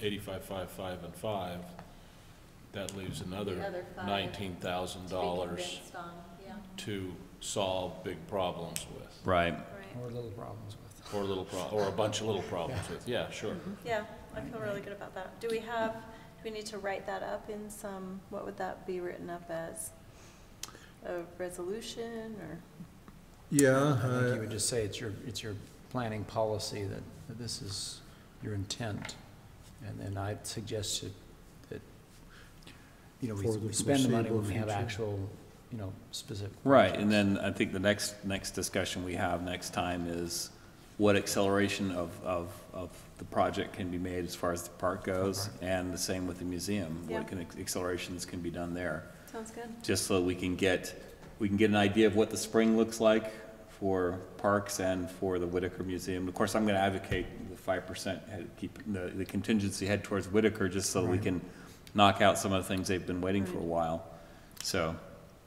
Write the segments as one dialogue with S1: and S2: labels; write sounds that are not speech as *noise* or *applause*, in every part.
S1: eighty-five, five, five, and five, that leaves
S2: The
S1: another
S2: other five
S1: nineteen thousand dollars
S2: To be convinced on, yeah,
S1: to solve big problems with,
S3: Right.
S2: right.
S4: Or little problems with.
S1: or little pro, or a bunch of little problems with, yeah, sure.
S2: Yeah, I feel really good about that. Do we have, do we need to write that up in some, what would that be written up as? A resolution or?
S5: Yeah,
S4: I think you
S5: uh,
S4: would just say it's your, it's your planning policy that, that this is your intent. And then I suggest that, that, you know, we
S5: For the
S4: we spend the money
S5: foreseeable
S4: when we have
S5: future.
S4: actual, you know, specific.
S3: Right, and then I think the next, next discussion we have next time is what acceleration of, of, of the project can be made as far as the park goes, and the same with the museum,
S2: Yeah.
S3: what can, accelerations can be done there.
S2: Sounds good.
S3: Just so we can get, we can get an idea of what the spring looks like for parks and for the Whitaker Museum. Of course, I'm gonna advocate the five percent, keep the, the contingency head towards Whitaker, just so we can knock out some of the things they've been waiting for a while. So,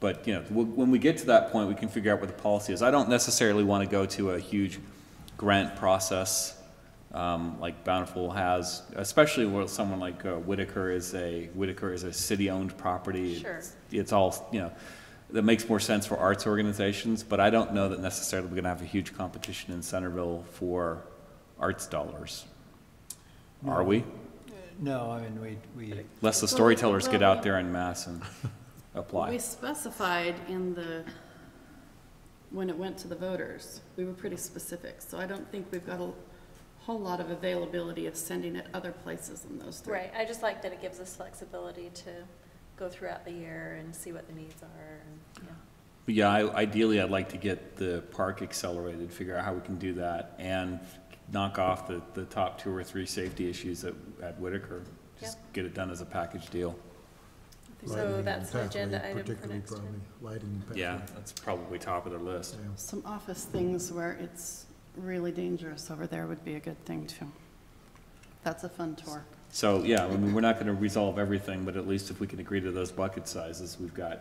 S3: but, you know, w- when we get to that point, we can figure out what the policy is. I don't necessarily want to go to a huge grant process um, like Bountiful has, especially where someone like uh, Whitaker is a, Whitaker is a city-owned property.
S2: Sure.
S3: It's all, you know, that makes more sense for arts organizations, but I don't know that necessarily we're going to have a huge competition in Centerville for arts dollars. Are we?
S4: No, I mean, we, we,
S3: Lest the storytellers get out there en masse and apply.
S6: We specified in the, when it went to the voters, we were pretty specific, so I don't think we've got a whole lot of availability of sending it other places than those three.
S2: Right, I just like that it gives us flexibility to go throughout the year and see what the needs are and, yeah.
S3: But Yeah, I- ideally, I'd like to get the park accelerated, figure out how we can do that, and knock off the, the top two or three safety issues at, at Whitaker. Just get it done as a package deal.
S2: So
S5: lighting
S2: that's an
S5: and
S2: agenda
S5: pathway,
S2: item for
S5: particularly
S2: next time.
S5: probably, Lighting. and
S3: Yeah,
S5: pathway,
S3: that's probably top of the list.
S5: yeah.
S6: Some office things where it's really dangerous over there would be a good thing too. That's a fun tour.
S3: So, yeah, I mean, we're not gonna resolve everything, but at least if we can agree to those bucket sizes, we've got,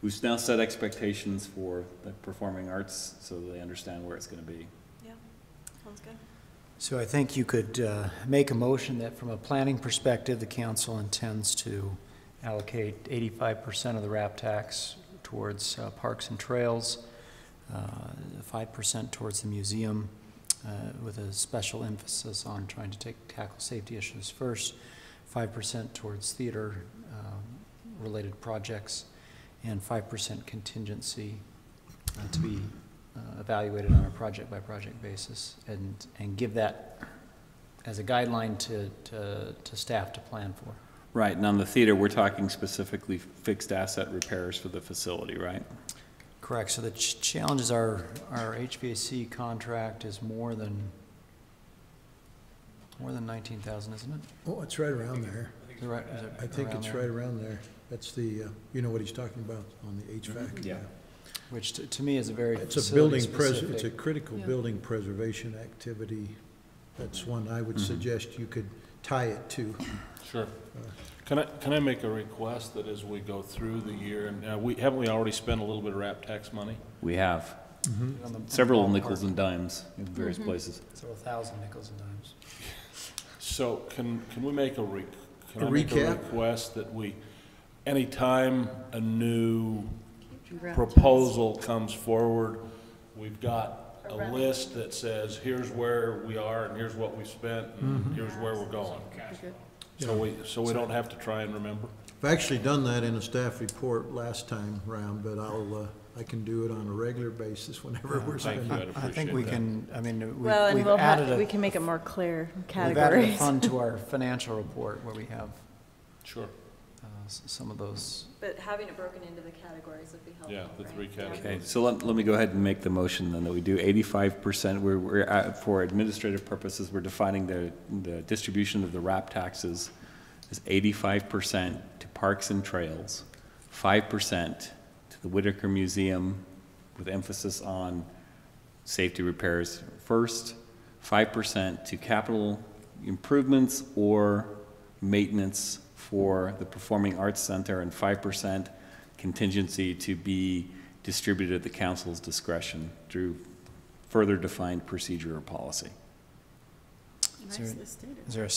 S3: we've now set expectations for the performing arts, so they understand where it's gonna be.
S2: Yeah, sounds good.
S4: so I think you could uh, make a motion that from a planning perspective, the council intends to allocate eighty-five percent of the RAP tax towards uh, parks and trails, uh, five percent towards the museum, uh, with a special emphasis on trying to take, tackle safety issues first, five percent towards theater-related projects, and five percent contingency uh, to be uh, evaluated on a project-by-project basis, and, and give that as a guideline to, to, to staff to plan for.
S3: Right, and on the theater, we're talking specifically fixed asset repairs for the facility, right?
S4: Correct, so the ch- challenge is our, our HVAC contract is more than, more than nineteen thousand, isn't it?
S5: Oh, it's right around there.
S4: Is it right- is it
S5: I think
S4: around
S5: it's
S4: there?
S5: right around there. That's the, uh, you know what he's talking about on the HVAC.
S3: Yeah.
S4: Which to, to me is a very
S5: It's a building pres,
S4: facility-specific.
S5: it's a critical
S6: Yeah.
S5: building preservation activity. That's one I would suggest you could tie it to.
S1: Sure. Can I, can I make a request that as we go through the year, and uh, we, haven't we already spent a little bit of RAP tax money?
S3: We have
S4: On the-
S5: Mm.
S3: several nickels and dimes in various places.
S4: Several thousand nickels and dimes.
S1: So can, can we make a re, can
S5: A
S1: I make a
S5: recap?
S1: request that we, anytime a new
S6: Congrats.
S1: proposal comes forward, we've got
S2: A
S1: a
S2: revenue.
S1: list that says, here's where we are, and here's what we spent, and here's where we're going.
S6: Okay.
S1: So we, so we don't have to try and remember?
S5: I've actually done that in a staff report last time round, but I'll, uh, I can do it on a regular basis whenever we're
S1: Thank
S5: spending.
S1: you, I'd
S4: I think we
S1: appreciate that.
S4: can, I mean, we-
S2: Well, and
S4: we've
S2: we'll
S4: added
S2: have, we
S4: a,
S2: can make it more clear
S4: we've added a
S2: categories. *laughs*
S4: fund to our financial report where we have
S1: Sure,
S4: uh, s- some of those.
S2: But having it broken into the categories would be helpful,
S1: yeah, the
S2: right?
S1: three
S2: Yeah.
S3: Okay,
S1: categories.
S3: so let, let me go ahead and make the motion then that we do eighty-five percent, we're, we're, at- for administrative purposes, we're defining the, the distribution of the RAP taxes as eighty-five percent to parks and trails, five percent to the Whitaker Museum with emphasis on safety repairs first, five percent to capital improvements or maintenance for the Performing Arts Center, and five percent contingency to be distributed at the council's discretion through further defined procedure or policy.
S4: Is there-
S6: Nicely stated.
S4: Is there a